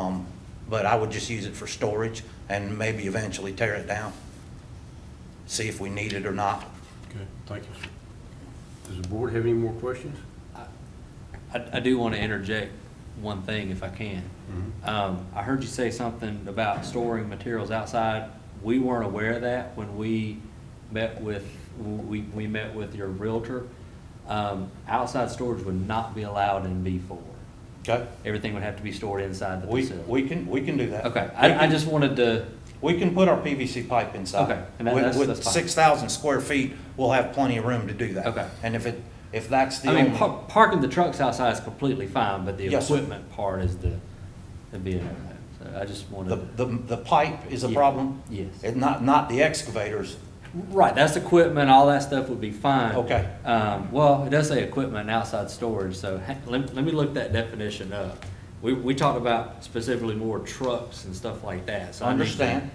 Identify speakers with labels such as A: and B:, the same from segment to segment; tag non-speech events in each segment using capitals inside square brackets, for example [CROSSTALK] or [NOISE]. A: Um, But I would just use it for storage and maybe eventually tear it down. See if we need it or not.
B: Okay, thank you, sir. Does the board have any more questions?
C: I, I do want to interject one thing if I can.
A: Mm-hmm.
C: Um, I heard you say something about storing materials outside. We weren't aware of that when we met with, we, we met with your realtor. Um, outside storage would not be allowed in B four.
A: Okay?
C: Everything would have to be stored inside the
A: We,
C: facility.
A: we can, we can do that.
C: Okay,
A: We
C: I, I
A: can-
C: just wanted to,
A: We can put our PVC pipe inside.
C: Okay, and that-
A: With-
C: that's- that's
A: With
C: fine.
A: six thousand square feet, we'll have plenty of room to do that.
C: Okay.
A: And if it, if that's the
C: I mean,
A: only,
C: par- parking the trucks outside is completely fine, but the
A: Yes, sir.
C: equipment part is the, the big, so I just
A: the,
C: wanted. to-
A: the, the pipe is a
C: Yeah,
A: problem?
C: yes.
A: And not, not the excavators,
C: Right, that's equipment, all that stuff would be fine.
A: Okay.
C: Um, well, it does say equipment and outside storage, so ha- let, let me look that definition up. We, we talked about specifically more trucks and stuff like that, so. I need to-
A: understand?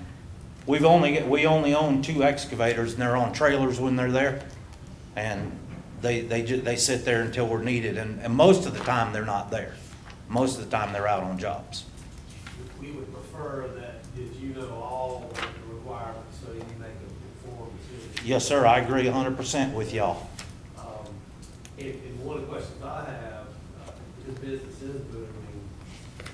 A: We've only, we only own two excavators and they're on trailers when they're there. And they, they ju, they sit there until we're needed and, and most of the time they're not there. Most of the time they're out on jobs.
D: We would prefer that, that you know all of the requirements, so you make a informed decision.
A: Yes, sir, I agree hundred percent with y'all.
D: Um, And, and one of the questions I have, uh, this business is booming,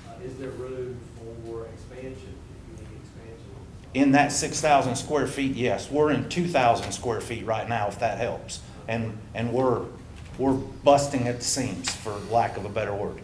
D: uh, is there room for expansion, if you need expansion?
A: In that six thousand square feet, yes, we're in two thousand square feet right now, if that helps. And, and we're, we're busting at the seams, for lack of a better word.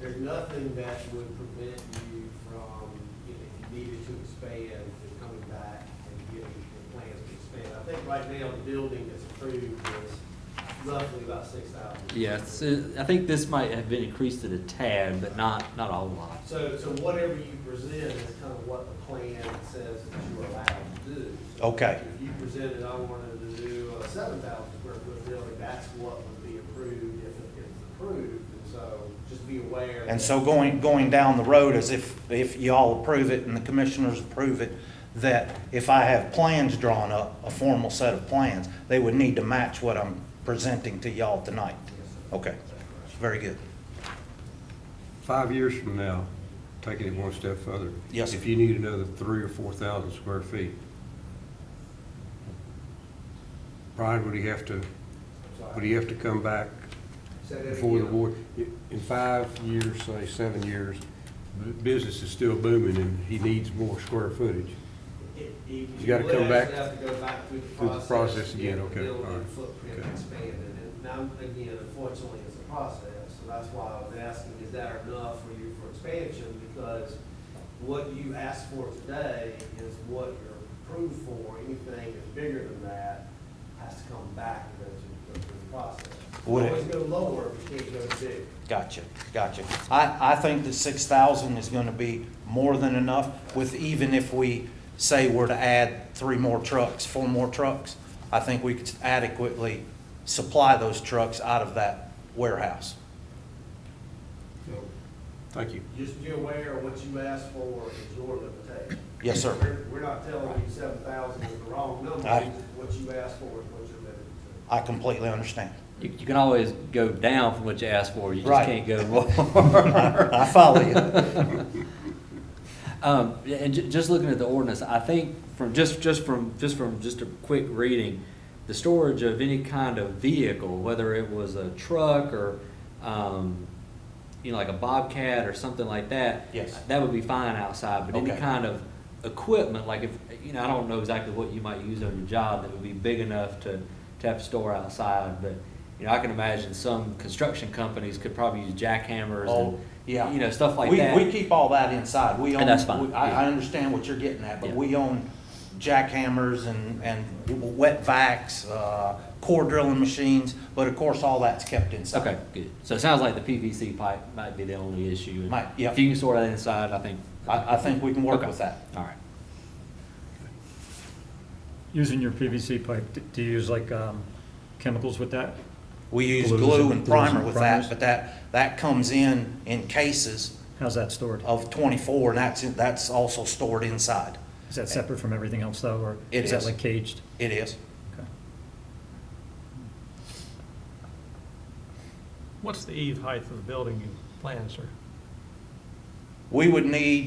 D: There's nothing that would prevent you from, you know, if you needed to expand, and coming back and getting the plans to expand. I think right now, the building that's approved is roughly about six thousand.
C: Yes, it- I think this might have been increased at a tad, but not, not a whole lot.
D: So, so whatever you present is kind of what the plan says that you're allowed to do. So
A: Okay.
D: If you presented, I wanted to do a seven thousand square foot building, that's what would be approved if it gets approved, and so just be aware.
A: And
D: that-
A: so going, going down the road as if, if y'all approve it and the commissioners approve it, that if I have plans drawn up, a formal set of plans, they would need to match what I'm presenting to y'all tonight.
D: Yes, sir.
A: Okay, very good.
B: Five years from now, taking it one step further.
A: Yes, sir.
B: If you need another three or four thousand square feet, Brian, would he have to,
D: Sorry.
B: would he have to come back
D: Say that
B: before the
D: again.
B: board? In five years, say seven years, bu- business is still booming and he needs more square footage.
D: It- You
B: You gotta
D: would
B: come back
D: actually have to go back through the
B: through the
D: process.
B: process
D: to
B: again,
D: get the
B: okay,
D: building
B: all right,
D: Footprint
B: okay.
D: expanded, and now, again, unfortunately, it's a process, so that's why I was asking, is that enough for you for expansion? Because what you asked for today is what you're approved for, anything that's bigger than that has to come back and go through- go through the process. You
A: Would it-
D: Always go lower, but you can't go big.
A: Gotcha, gotcha. I, I think the six thousand is gonna be more than enough with, even if we say we're to add three more trucks, four more trucks, I think we could adequately supply those trucks out of that warehouse.
D: So
B: Thank you.
D: Just be aware of what you asked for is your limitation.
A: Yes, sir.
D: We're- We're not telling you seven thousand is the wrong number,
A: Right.
D: what you asked for is what you're limited to.
A: I completely understand.
C: You, you can always go down from what you asked for, you
A: Right.
C: just can't go [LAUGHS]
A: [LAUGHS]
C: more.
A: I follow you.
C: [LAUGHS] Um, yeah, and ju- just looking at the ordinance, I think from, just, just from, just from, just a quick reading, the storage of any kind of vehicle, whether it was a truck or, um, you know, like a Bobcat or something like that.
A: Yes.
C: That would be fine outside, but any
A: Okay.
C: kind of equipment, like if, you know, I don't know exactly what you might use on your job that would be big enough to, to have to store outside, but, you know, I can imagine some construction companies could probably use jackhammers
A: [LAUGHS] Oh,
C: and,
A: yeah.
C: you know, stuff like
A: We-
C: that.
A: We keep all that inside. We
C: And
A: own,
C: that's fine,
A: we- I, I
C: yeah.
A: understand what you're getting at, but
C: Yeah.
A: we own jackhammers and, and wet vacs, uh, core drilling machines, but of course, all that's kept inside.
C: Okay, good. So it sounds like the PVC pipe might be the only issue.
A: Might, yeah.
C: If you can sort that inside, I think.
A: I, I think we can work
C: Okay.
A: with that.
C: All right.
E: Using your PVC pipe, d- do you use like um, chemicals with that?
A: We use
E: Glues
A: glue
E: and-
A: and
E: glues and
A: primer with that,
E: primers.
A: but that, that comes in, in cases
E: How's that stored?
A: of twenty-four, and that's, that's also stored inside.
E: Is that separate from everything else though, or
A: It
E: is that
A: is.
E: like caged?
A: It is.
E: Okay.
F: What's the eve height of the building you plan, sir?
A: We would need